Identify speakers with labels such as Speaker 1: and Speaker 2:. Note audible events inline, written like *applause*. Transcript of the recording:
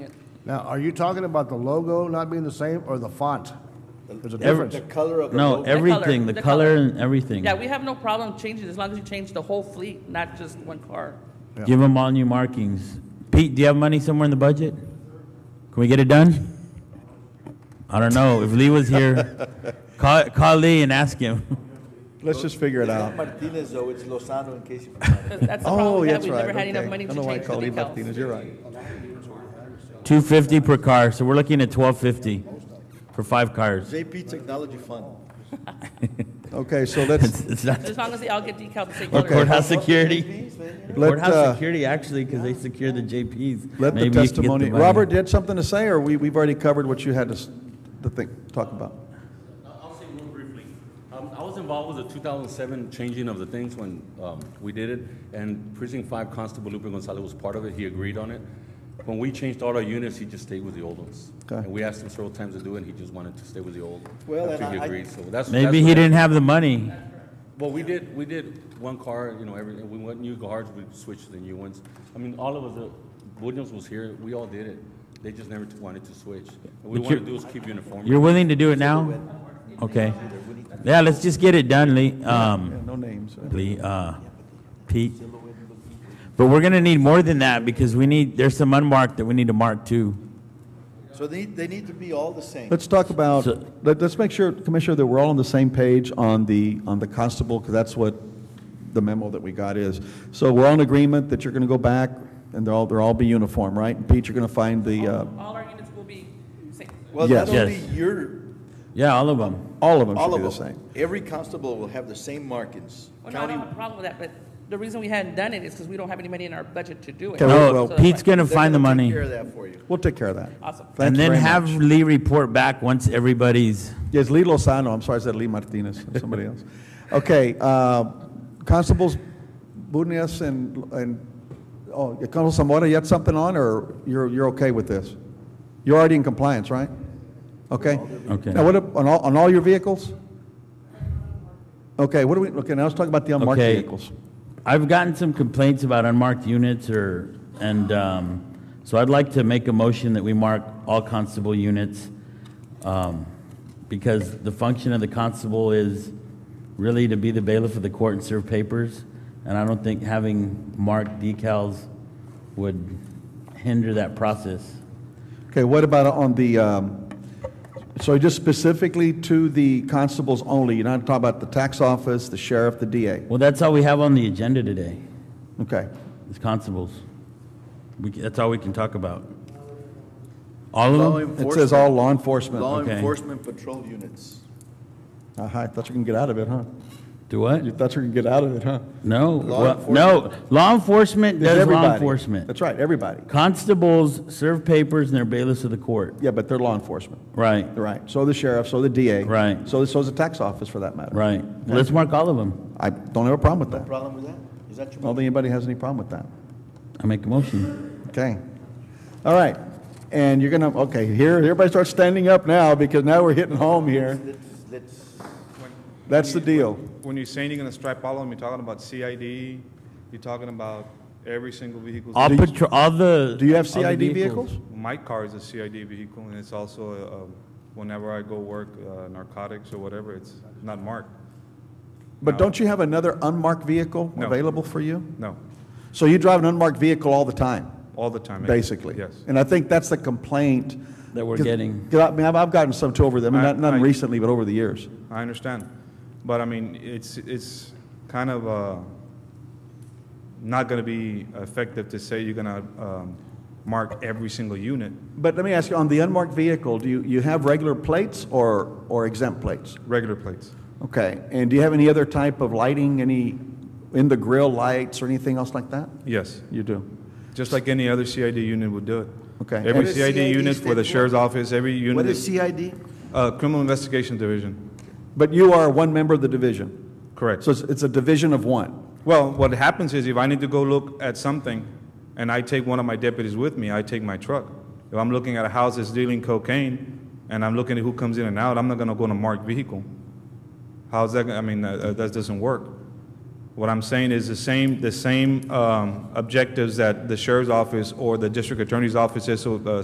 Speaker 1: Now, are you talking about the logo not being the same or the font? There's a
Speaker 2: Every-
Speaker 1: difference.
Speaker 2: The
Speaker 3: color of the
Speaker 2: No,
Speaker 3: logo.
Speaker 2: everything, the
Speaker 4: the color.
Speaker 2: color and everything.
Speaker 4: Yeah, we have no problem changing, as long as you change the whole fleet, not just one car.
Speaker 1: Yeah.
Speaker 2: Give them all new markings. Pete, do you have money somewhere in the budget? Can we get it done? I don't know. If Lee
Speaker 3: *laughs*
Speaker 2: was here, call, call Lee and ask him.
Speaker 5: Let's just figure it
Speaker 3: It's
Speaker 5: out.
Speaker 3: not Martinez, though, it's Lozano in case you forgot.
Speaker 4: 'Cause that's the problem
Speaker 5: *laughs* Oh,
Speaker 4: we have,
Speaker 5: that's
Speaker 4: we've
Speaker 5: right.
Speaker 4: never had
Speaker 5: okay.
Speaker 4: enough money
Speaker 5: I
Speaker 4: to
Speaker 5: don't know why I
Speaker 4: change
Speaker 5: called
Speaker 4: the
Speaker 5: him
Speaker 4: decals.
Speaker 5: Martinez, you're right.
Speaker 2: Two fifty per car, so we're looking at twelve fifty for five cars.
Speaker 3: JP Technology Fund.
Speaker 5: Okay, so let's,
Speaker 2: *laughs* It's, it's not
Speaker 4: As long as they all get decals the same
Speaker 2: the
Speaker 4: color.
Speaker 2: courthouse security.
Speaker 3: JPs, man, you know.
Speaker 5: let,
Speaker 2: Courthouse
Speaker 5: uh,
Speaker 2: security, actually, because they secure the JPs.
Speaker 5: let
Speaker 2: Maybe
Speaker 5: the
Speaker 2: you can get
Speaker 5: testimony,
Speaker 2: money.
Speaker 5: Robert, did something to say, or we, we've already covered what you had to, s- to think, talk about?
Speaker 6: I'll say real briefly. Um, I was involved with the 2007 changing of the things when um, we did it, and Precinct 5 Constable Lupe Gonzalez was part of it. He agreed on it. When we changed all our units, he just stayed with the old ones.
Speaker 5: Okay.
Speaker 6: And we asked him several times to do it, and he just wanted to stay with the old.
Speaker 3: Well,
Speaker 6: after
Speaker 3: and
Speaker 6: he
Speaker 3: I- I-
Speaker 6: agreed. So that's that's
Speaker 2: Maybe he
Speaker 6: what-
Speaker 2: didn't have the money.
Speaker 6: Well, we did. We did one car. You know, every we went new cars. We switched to the new ones. I mean, all of us. Uh, Williams was here. We all did it. They just never wanted to switch.
Speaker 2: But
Speaker 6: What we want to
Speaker 2: you're-
Speaker 6: do is keep uniform.
Speaker 2: You're willing to do it now? Okay. Yeah, let's just get it done, Lee. Um,
Speaker 5: Yeah, no names. right?
Speaker 2: Lee, uh, Pete. But we're gonna need more than that because we need, there's some unmarked that we need to mark too.
Speaker 3: So they, they need to be all the same.
Speaker 5: Let's talk about,
Speaker 2: So-
Speaker 5: let, us make sure, Commissioner, that we're all on the same page on the, on the constable, because that's what the memo that we got is. So we're all in agreement that you're going to go back, and they'll, all they'll all be uniform, right? And Pete, you're going to find the, uh,
Speaker 4: All our units will be same.
Speaker 3: Well,
Speaker 5: Yes.
Speaker 3: not only
Speaker 2: Yes.
Speaker 3: your,
Speaker 2: Yeah, all of them.
Speaker 5: all of them
Speaker 3: all
Speaker 5: should be the
Speaker 3: of
Speaker 5: same.
Speaker 3: them, every constable will have the same markings.
Speaker 4: Well, no, I
Speaker 3: County,
Speaker 4: don't have a problem with that, but the reason we hadn't done it is because we don't have any money in our budget to do it.
Speaker 5: Okay,
Speaker 2: No,
Speaker 5: well,
Speaker 4: So that's
Speaker 2: Pete's
Speaker 4: why.
Speaker 2: gonna
Speaker 3: they're
Speaker 2: find the
Speaker 3: gonna take
Speaker 2: money.
Speaker 3: care of that for you.
Speaker 5: We'll take care of that.
Speaker 4: Awesome.
Speaker 5: Thank
Speaker 2: And
Speaker 5: you
Speaker 2: then
Speaker 5: very
Speaker 2: have
Speaker 5: much.
Speaker 2: Lee report back once everybody's,
Speaker 5: Yes, Lee Lozano, I'm sorry, I said Lee Martinez, somebody else. Okay, uh, Constables Bunias and, and, oh, Constable Zamora, you had something on, or you're, you're okay with this? You're already in compliance, right? Okay?
Speaker 2: Okay.
Speaker 5: Now, what, ab- on all, on all your vehicles? Okay, what do we, okay, now let's talk about the unmarked
Speaker 2: Okay.
Speaker 5: vehicles.
Speaker 2: I've gotten some complaints about unmarked units or, and, um, so I'd like to make a motion that we mark all constable units. Um, because the function of the constable is really to be the bailiff of the court and serve papers. And I don't think having marked decals would hinder that process.
Speaker 5: Okay, what about on the, um, so just specifically to the constables only? You're not talking about the tax office, the sheriff, the DA?
Speaker 2: Well, that's all we have on the agenda today,
Speaker 5: Okay.
Speaker 2: is constables. We, c- that's all we can talk about. All of
Speaker 3: Law
Speaker 2: them?
Speaker 5: It says all law enforcement.
Speaker 3: Law
Speaker 2: okay.
Speaker 3: enforcement patrol units.
Speaker 5: Uh-huh, I thought you can get out of it, huh?
Speaker 2: Do what?
Speaker 5: You thought you could get out of it, huh?
Speaker 2: No,
Speaker 3: Law
Speaker 2: well, no, law enforcement
Speaker 5: It's
Speaker 2: does law
Speaker 5: everybody.
Speaker 2: enforcement.
Speaker 5: That's right, everybody.
Speaker 2: Constables serve papers and they're bailiffs of the court.
Speaker 5: Yeah, but they're law enforcement.
Speaker 2: Right,
Speaker 5: Right. So the sheriff, so the DA.
Speaker 2: Right.
Speaker 5: So, so is the tax office for that matter.
Speaker 2: right. Let's mark all of them.
Speaker 5: I don't have a problem with that. I
Speaker 3: Problem with that? Is that your?
Speaker 5: don't think anybody has any problem with that.
Speaker 2: I make a motion.
Speaker 5: Okay. All right. And you're gonna, okay, here, everybody starts standing up now because now we're hitting home here.
Speaker 3: Let's, let's,
Speaker 5: That's the deal.
Speaker 7: When you're saying you're gonna strip all of them, you're talking about CID, you're talking about every single vehicle.
Speaker 2: All patro, all the.
Speaker 5: Do you have
Speaker 2: all the
Speaker 5: CID vehicles?
Speaker 7: My car is a CID vehicle, and it's also, uh, um, whenever I go work uh, narcotics or whatever, it's not marked,
Speaker 5: But don't you have another unmarked vehicle
Speaker 7: No.
Speaker 5: available for you?
Speaker 7: no,
Speaker 5: So you drive an unmarked vehicle all the time?
Speaker 7: all the time.
Speaker 5: basically.
Speaker 7: Yes.
Speaker 5: And I think that's the complaint.
Speaker 2: That we're getting.
Speaker 5: 'Cause I mean, I've, I've gotten some too over them,
Speaker 7: I-
Speaker 5: not, none
Speaker 7: I-
Speaker 5: recently, but over the years.
Speaker 7: I understand, but I mean, it's, it's kind of, uh, not gonna be effective to say you're gonna, um, mark every single unit,
Speaker 5: But let me ask you, on the unmarked vehicle, do you, you have regular plates or, or exempt plates?
Speaker 7: regular plates.
Speaker 5: Okay, and do you have any other type of lighting, any in the grill lights or anything else like that?
Speaker 7: Yes,
Speaker 5: You do.
Speaker 7: just like any other CID unit would do it.
Speaker 5: Okay. What
Speaker 7: Every
Speaker 3: is
Speaker 7: CID
Speaker 3: CID
Speaker 7: unit
Speaker 3: stand
Speaker 7: for the
Speaker 3: for?
Speaker 7: sheriff's office, every unit.
Speaker 3: what is CID?
Speaker 7: Uh, Criminal Investigation Division,
Speaker 5: But you are one member of the division,
Speaker 7: correct.
Speaker 5: so it's, it's a division of one.
Speaker 7: Well, what happens is if I need to go look at something and I take one of my deputies with me, I take my truck. If I'm looking at a house that's dealing cocaine and I'm looking at who comes in and out, I'm not going to go in a marked vehicle. How's that? gonna- I mean, uh, uh, that doesn't work. What I'm saying is the same, the same um, objectives that the sheriff's office or the district attorney's office is, so, uh,